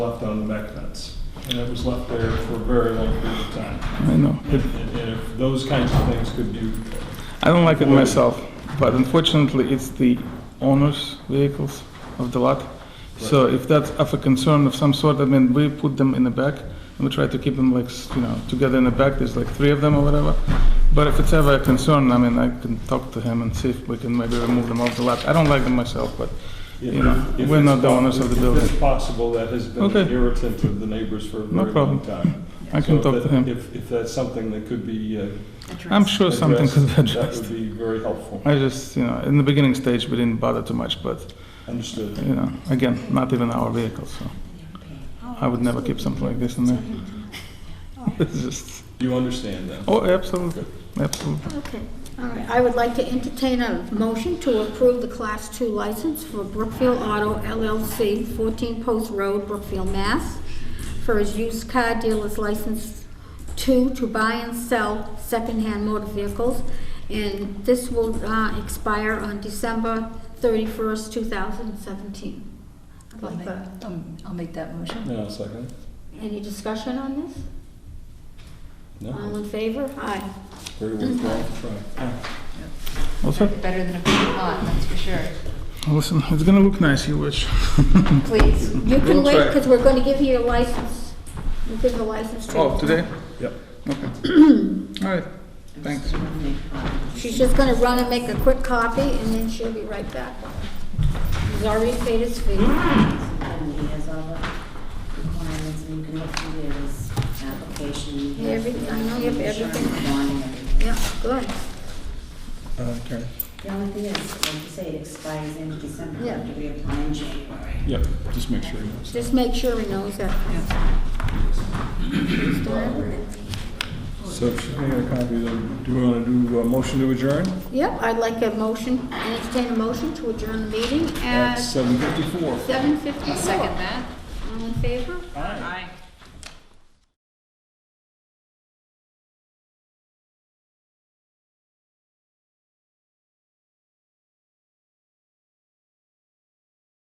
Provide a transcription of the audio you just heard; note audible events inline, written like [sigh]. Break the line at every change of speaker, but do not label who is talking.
left on the mech nets. And it was left there for a very long period of time.
I know.
And, and and if those kinds of things could be,
I don't like it myself, but unfortunately, it's the owner's vehicles of the lot. So if that's of a concern of some sort, I mean, we put them in the back, and we try to keep them like, s- you know, together in the back, there's like three of them or whatever. But if it's ever a concern, I mean, I can talk to him and see if we can maybe remove them off the lot. I don't like them myself, but, you know,
if
we're not the
it's-
owners of the
If
building.
it's possible, that has been an
Okay.
irritant to the neighbors for a
No
very long
problem.
time.
I can
So
talk
that-
to him.
If, if that's something that could be uh,
I'm sure something could be
addressed, that
addressed.
would be very helpful.
I just, you know, in the beginning stage, we didn't bother too much, but,
Understood.
you know, again, not even our vehicles, so. I would never keep something like this in there. [laughs] It's just,
You understand that?
oh, absolutely, absolutely.
Okay, all right. I would like to entertain a motion to approve the Class 2 license for Brookfield Auto LLC, 14 Post Road, Brookfield, Mass, for his used car dealer's license two to buy and sell secondhand motor vehicles. And this will uh, expire on December 31st, 2017. I'd
I'll
like
make-
that.
um, I'll make that motion.
Yeah, second.
Any discussion on this? All
No,
in favor? Aye.
very worthwhile to try.
Also,
Better than a big pot, that's for sure.
listen, it's gonna look nice, you wish.
Please.
You can
We'll
wait,
try.
because we're going to give you your license. We'll give the license to you.
Oh, today?
Yep.
Okay. [clears throat] All right, thanks.
She's just gonna run and make a quick copy, and then she'll be right back. He's already paid his fee.
And he has all the requirements, and you can look through his application. you have
Everything- I know you have everything.
insurance, bond, and everything.
Yeah, good.
Uh, Okay.
The only thing is, like you say, it expires in December,
Yeah.
after we apply in January.
Yep, just make sure you know.
Just make sure he knows that.
So, I got a copy of them. Do we want to do a motion to adjourn?
Yep, I'd like a motion, entertain a motion to adjourn the meeting
At
at
7:54.
seven fifty-four.
Second that?
All in favor?
Aye.